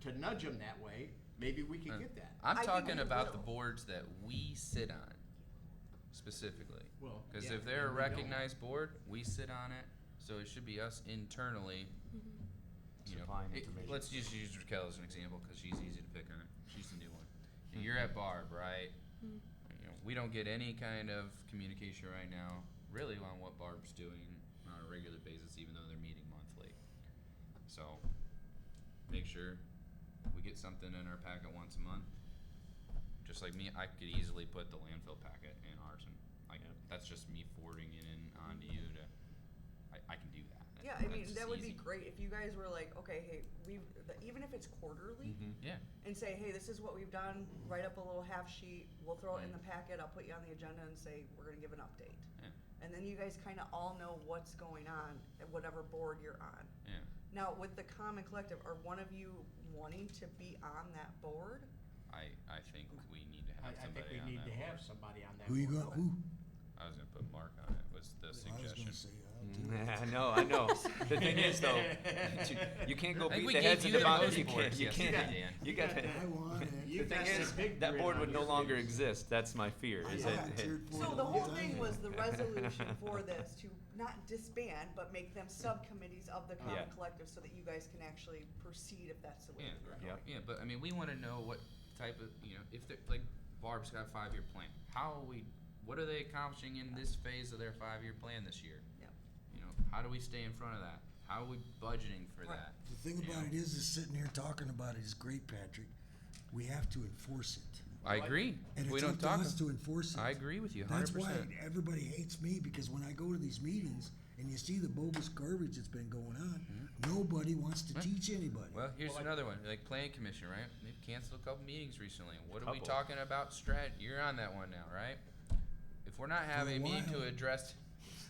to nudge them that way, maybe we could get that. I'm I think talking we about the will. boards that we sit on specifically. Well, Because yeah, if they're a and we don't. recognized board, we sit on it, so it should be us internally. You know, Supplying it- information. let's just use Raquel as an example because she's easy to pick on. She's the new one. And You're at Barb, right? Mm-hmm. You know, we don't get any kind of communication right now, really, on what Barb's doing on a regular basis, even though they're meeting monthly. So, make sure we get something in our packet once a month. Just like me, I could easily put the landfill packet in ours, and like that's just me forwarding it in onto you. To I, I can do that. Yeah, I mean That's that would easy. be great if you guys were like, okay, hey, we've the- even if it's quarterly, Yeah, and say, hey, this is what we've done. Mm-hmm. Write up a little half sheet. We'll throw it in the packet. I'll put you on the agenda and say we're gonna give an update, yeah, and then you guys kind of all know what's going on at whatever board you're on. yeah. Now with the common collective, are one of you wanting to be on that board? I I think we need to I, I have think somebody we on need that to have board. somebody on that. Who you board. got? Who? I was gonna put Mark on it. Was the I was suggestion? gonna say uh, Mm. I know, I know. The thing is, though, you, you can't go I think beat we the heads gave you of the the bottom. most You can't. boards You yesterday, can't. Dan. You got You to. got I want it. You The thing got that is, big that grin board on would no your longer face. exist. That's my fear. I Is got that, cheered for So it the all whole time. thing was the resolution for this to not disband, but make them subcommittees of the common Yeah. collective so that you guys can actually proceed if that's the way. Yeah, you're right. going. Yeah. yeah, but I mean, we want to know what type of you know if they're like Barb's got a five year plan. How are we? What are they accomplishing in this phase of their five year plan this year? Yep. You know, how do we stay in front of that? How are we budgeting for Right. that? The thing about it is, is sitting here talking about it is great, Patrick. We have to enforce it, I agree. and we it's don't up to talk. us to enforce it. I agree with you. 100%. That's why everybody hates me because when I go to these meetings and you see the bogus garbage that's been going on, nobody wants to teach anybody. Hmm? Well, here's Well, I- another one. Like planning commission, right? They've canceled a couple meetings recently. What are we Couple. talking about? Strat, you're on that one now, right? If we're not having a meeting to while. address,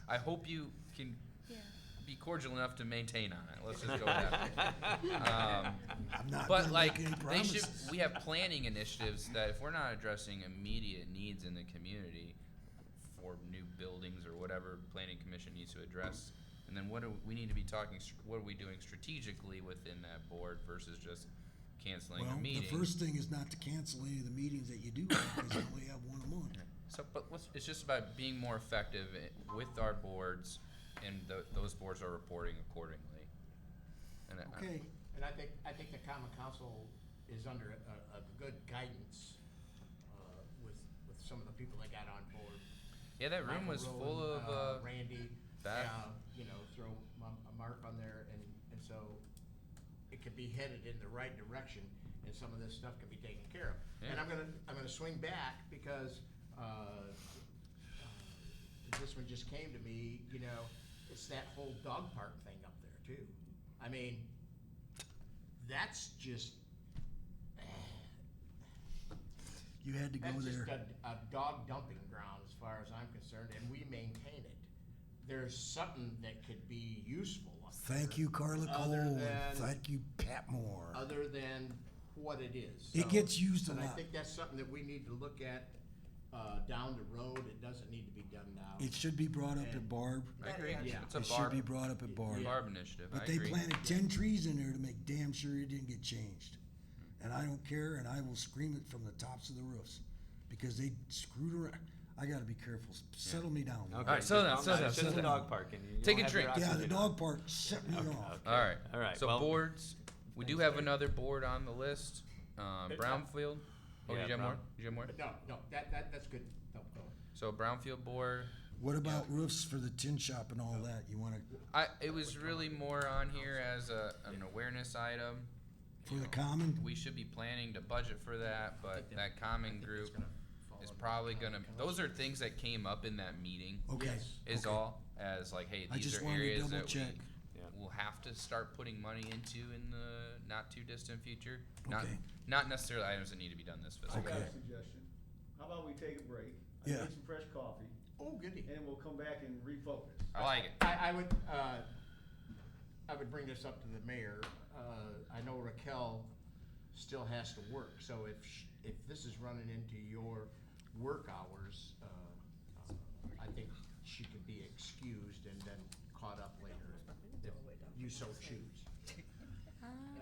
I hope you can Yeah. be cordial enough to maintain on it. Let's just go with that. um, I'm not but gonna like, make any they should. promises. We have planning initiatives that if we're not addressing immediate needs in the community for new buildings or whatever planning commission needs to address, and then what do we need to be talking? str- What are we doing strategically within that board versus just canceling well, a meeting? the first thing is not to cancel any of the meetings that you do because you only have one a month. So, but let's, it's just about being more effective i- with our boards, and tho- those boards are reporting accordingly. And uh, I- I- Okay, And I think, I think the common council is under a, a good guidance, uh, with, with some of the people that got on board. yeah, that room Michael was full Rowland, of. Uh, Randy, that. uh, you know, throw Mar- Mark on there and, and so it could be headed in the right direction and some of this stuff could be taken care of. And Yeah. I'm gonna, I'm gonna swing back because, uh, uh, this one just came to me, you know, it's that whole dog park thing up there too. I mean, that's just, you had to go that's just there. a, a dog dumping ground as far as I'm concerned, and we maintain it. There's something that could be useful. up Thank there, you, Carla Cole. Other and than, thank you, Pat Moore. other than what it is. It So- gets used a And I lot. think that's something that we need to look at, uh, down the road. It doesn't need to be done now. it should be brought up at Barb. I agree. Yeah. It's a it should be barb, brought up at Barb. barb initiative. I But they agree. planted ten trees in there to make damn sure it didn't get changed. And I don't care, and I will scream it from the tops of the roofs, because they screwed around. I gotta be careful, S- settle me down. okay. All right, settle down, just- settle down, It's just settle a down. dog park, and you Take don't a have your drink. Yeah, oxygen the on. dog park set me Okay, off. okay. All right. All right. So well, boards, we do have another board on the list. Um, Brownfield. Oh, did Yeah, you have Brown- more? Did you have more? But no, no, that, that, that's good. No, go on. So Brownfield board. What about roofs for the tin shop and all that? You wanna, I it was really more on here as a, an awareness item. for the common? We should be planning to budget for that, but that common group gonna fall is under probably common gonna. council. Those are things that came up in that meeting. Okay. Yes. Is okay. all as like, hey, I these just are wanted to areas double that we check. Yeah. will have to start putting money into in the not too distant future. Not Okay. not necessarily items that need to be done this fiscal. I got year. Okay. a suggestion. How about we take a break? I Yeah. Get some fresh coffee, Oh, goody. and we'll come back and refocus. I like it. I, I would, uh, I would bring this up to the mayor. Uh, I know Raquel still has to work, so if, sh- if this is running into your work hours, uh, uh, I think she could be excused and then caught up later if you so choose.